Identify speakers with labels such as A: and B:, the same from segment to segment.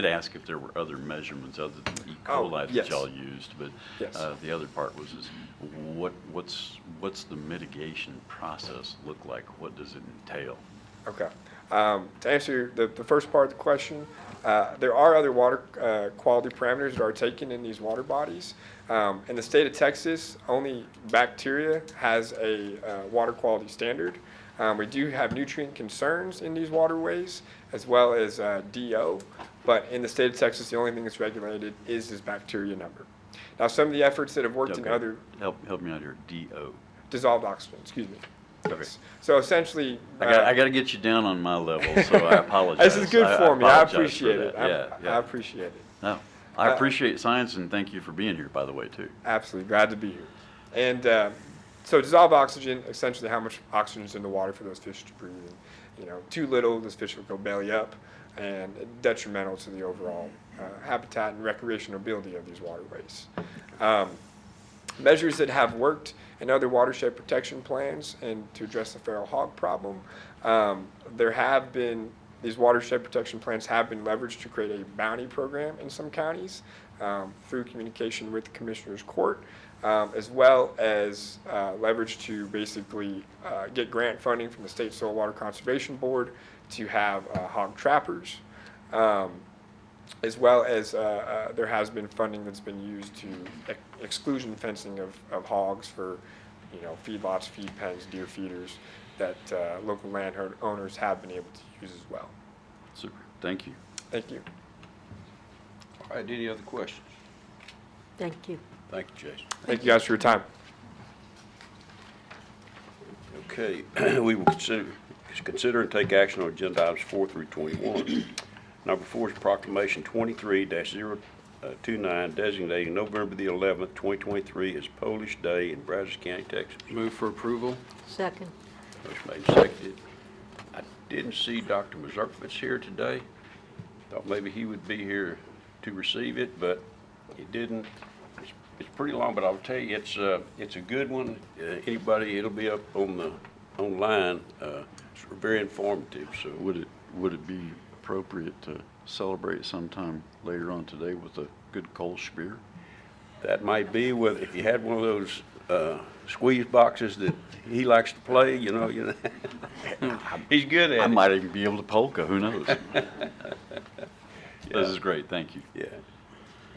A: did ask if there were other measurements other than E.
B: Oh,
A: coli
B: yes.
A: that y'all used, but
B: Yes.
A: uh, the other part was is what, what's, what's the mitigation process look like? What does it entail?
B: Okay. Um, To answer the, the first part of the question, uh, there are other water uh, quality parameters that are taken in these water bodies. Um, In the state of Texas, only bacteria has a uh, water quality standard. Um, We do have nutrient concerns in these waterways, as well as uh, DO, but in the state of Texas, the only thing that's regulated is this bacteria number. Now, some of the efforts that have worked in
A: Okay.
B: other
A: Help, help me out here, DO.
B: dissolved oxygen, excuse me.
A: Okay.
B: Yes. So essentially.
A: I got,
B: uh,
A: I got to get you down on my level, so I apologize.
B: This is good for me. I
A: apologize for
B: appreciate
A: that.
B: it. I-
A: Yeah,
B: I
A: yeah.
B: appreciate it.
A: No, I
B: Uh,
A: appreciate science and thank you for being here, by the way, too.
B: Absolutely. Glad to be here. And uh, so dissolved oxygen, essentially how much oxygen is in the water for those fish to breathe. And, you know, too little, this fish will go belly up and detrimental to the overall uh, habitat and recreational ability of these waterways. Um, measures that have worked in other watershed protection plans and to address the feral hog problem. Um, there have been, these watershed protection plans have been leveraged to create a bounty program in some counties um, through communication with the Commissioner's Court, um, as well as uh, leverage to basically uh, get grant funding from the State Soil Water Conservation Board to have uh, hog trappers. Um, as well as uh, uh, there has been funding that's been used to ex- exclusion fencing of, of hogs for, you know, feedlots, feed pens, deer feeders that uh, local landho- owners have been able to use as well.
A: Super, thank you.
B: Thank you.
C: All right, any other questions?
D: Thank you.
C: Thank you, Jason.
B: Thank you guys for your time.
C: Okay, we will consider, consider and take action on agenda items four through twenty-one. Number four is proclamation twenty-three 29 designating November the eleventh, twenty twenty-three as Polish Day in Brazos County, Texas.
E: Move for approval?
D: Second.
C: Motion made, and seconded. I didn't see Dr. Mazurkiewicz here today. Thought maybe he would be here to receive it, but he didn't. It's- It's pretty long, but I'll tell you, it's, uh, it's a good one. Uh, Anybody, it'll be up on the, online. Uh, It's very informative, so.
A: Would it, would it be appropriate to celebrate sometime later on today with a good Kolsch beer?
C: That might be with, if you had one of those uh, squeeze boxes that he likes to play, you know, you know. He's good at it.
A: I might even be able to polka, who knows? This is great, thank you.
C: Yeah.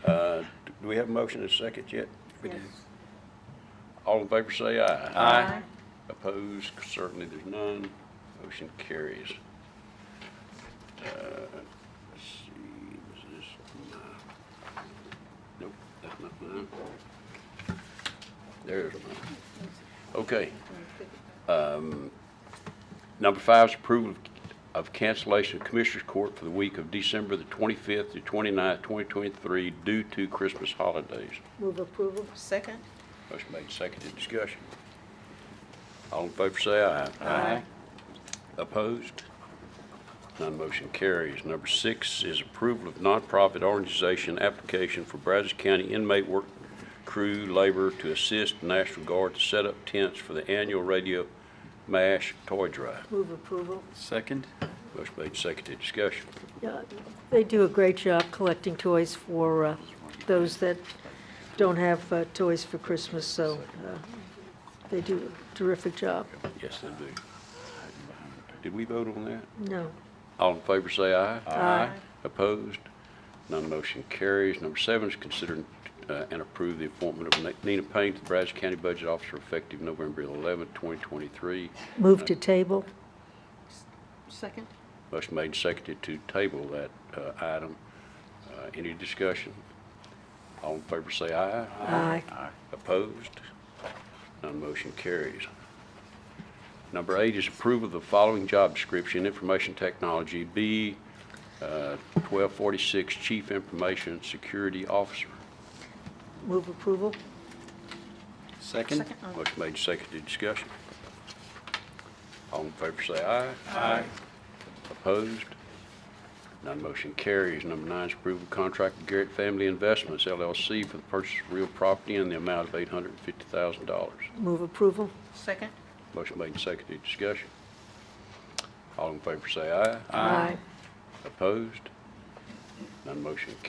C: Uh, Do we have a motion and a second yet?
D: Yes.
C: All in favor say aye.
D: Aye.
C: Opposed, certainly there's none. Motion carries. Uh, Let's see, was this mine? Nope, that's not mine. There's mine. Okay. Um, Number five is approval of- of cancellation of Commissioners Court for the week of December the 25th to 29th, 2023, due to Christmas holidays.
D: Move approval.
F: Second?
C: Motion made, seconded, discussion. All in favor say aye. Aye. Opposed? None motion carries. Number six is approval of nonprofit organization application for Brazos County inmate work crew labor to assist National Guard to set up tents for the annual radio MASH toy drive.
D: Move approval.
E: Second?
C: Motion made, seconded, discussion.
D: Yeah, They do a great job collecting toys for uh, those that don't have uh, toys for Christmas, so uh, they do a terrific job.
C: Yes, they do. Did we vote on that?
D: No.
C: All in favor say aye.
E: Aye.
C: Opposed? None motion carries. Number seven is consider uh, and approve the appointment of Nina Payne to the Brazos County Budget Officer effective November 11, 2023.
D: Move to table.
F: Second?
C: Motion made and seconded to table that uh, item. Uh, Any discussion? All in favor say aye.
D: Aye.
C: Opposed? None motion carries. Number eight is approval of the following job description, Information Technology, B uh, 1246, Chief Information Security Officer.
D: Move approval.
E: Second?
F: Second? oh,
C: Motion made, seconded, discussion. All in favor say aye. Aye. Opposed? None motion carries. Number nine is approval of contract with Garrett Family Investments LLC for the purchase of real property in the amount of $850,000.
D: Move approval.
F: Second?
C: Motion made and seconded, discussion. All in favor say aye.
D: Aye.
C: Opposed? None motion